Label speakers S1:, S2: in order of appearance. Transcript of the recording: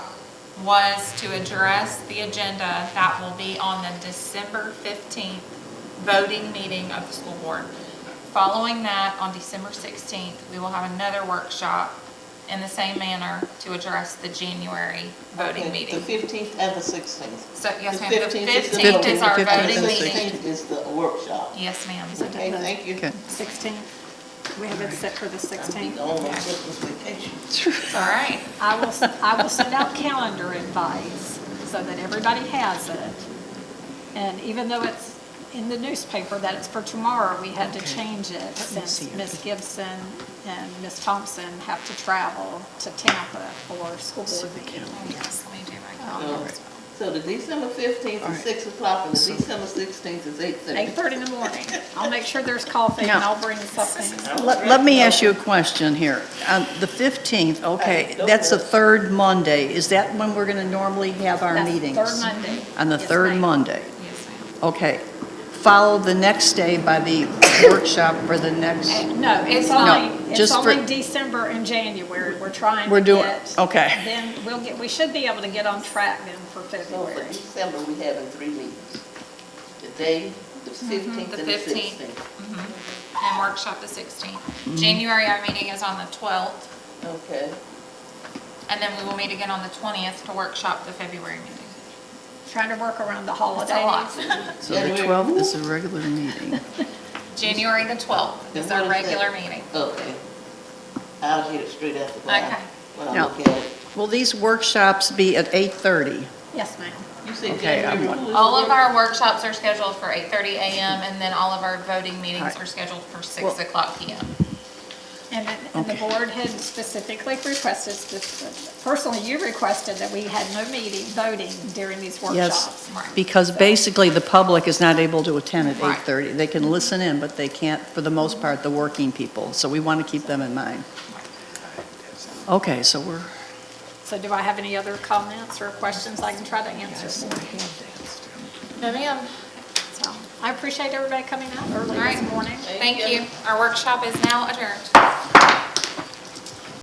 S1: was to address the agenda that will be on the December 15th voting meeting of the school board. Following that, on December 16th, we will have another workshop in the same manner to address the January voting
S2: Okay,
S1: meeting.
S2: The fifteenth and the sixteenth.
S1: So, yes,
S2: The
S1: ma'am, the
S2: 15th is the
S1: 15th is our
S3: voting.
S1: voting
S2: The
S1: meeting.
S2: sixteenth is the workshop.
S1: Yes, ma'am.
S2: Okay, thank you.
S3: Okay.
S4: 16. We have it set for the
S2: I'll be
S4: 16.
S2: gone on Christmas vacation.
S1: It's all right.
S4: I will, I will send out calendar advice so that everybody has it. And even though it's in the newspaper that it's for tomorrow, we had to change it
S3: see
S4: since
S3: it.
S4: Ms. Gibson and Ms. Thompson have to travel to Tampa for school board meeting.
S1: Oh, yes, let me do my
S2: So-
S1: calendar.
S2: So the December fifteenth is six o'clock and the December sixteenth is eight thirty.
S4: 8:30 in the morning. I'll make sure there's coffee and I'll bring something.
S3: Let, let me ask you a question here. Um, The 15th, okay, that's the third Monday. Is that when we're going to normally have our
S4: That's the
S3: meetings?
S4: Third Monday.
S3: On the
S4: Yes,
S3: third
S4: ma'am.
S3: Monday?
S1: Yes, ma'am.
S3: Okay. Followed the next day by the workshop for the next,
S4: No, it's
S3: No,
S4: only, it's
S3: just for-
S4: only December and January, we're trying to
S3: We're doing-
S4: get-
S3: okay.
S4: Then we'll get, we should be able to get on track then for
S2: So for
S4: February.
S2: December, we having three meetings. The day, the fifteenth
S1: Mm-hmm, the
S2: and the
S1: 15th.
S2: sixteenth.
S1: and workshop the 16th. January, our meeting is on the 12th,
S2: Okay.
S1: and then we will meet again on the 20th to workshop the February meeting.
S4: Trying to work around the
S1: It's a lot.
S4: holidays.
S3: so the 12th is a regular meeting.
S1: January the 12th is our
S2: And what is that?
S1: regular meeting.
S2: Okay. I'll get it straight after. when I-
S1: Okay.
S2: When I
S3: Now-
S2: look at it.
S3: Will these workshops be at 8:30?
S4: Yes, ma'am.
S2: You said
S3: Okay, I'm
S2: January,
S3: one.
S2: who is
S1: All
S2: the
S1: of
S2: work-
S1: our workshops are scheduled for 8:30 a.m., and then all of our voting meetings
S3: Alright.
S1: are scheduled for 6
S3: Well-
S1: o'clock p.m.
S4: And then, and the
S3: Okay.
S4: board had specifically requested, personally, you requested that we had no meeting, voting during these workshops.
S3: Yes,
S1: right.
S3: because basically the public is not able to attend at
S1: Right.
S3: 8:30. They can listen in, but they can't, for the most part, the working people. So we want to keep them in mind. Okay, so we're,
S4: So do I have any other comments or questions I can try to answer?
S1: No, ma'am.
S4: So, I appreciate everybody coming out early
S1: All right.
S4: this morning.
S1: Thank you. Our workshop is now adjourned.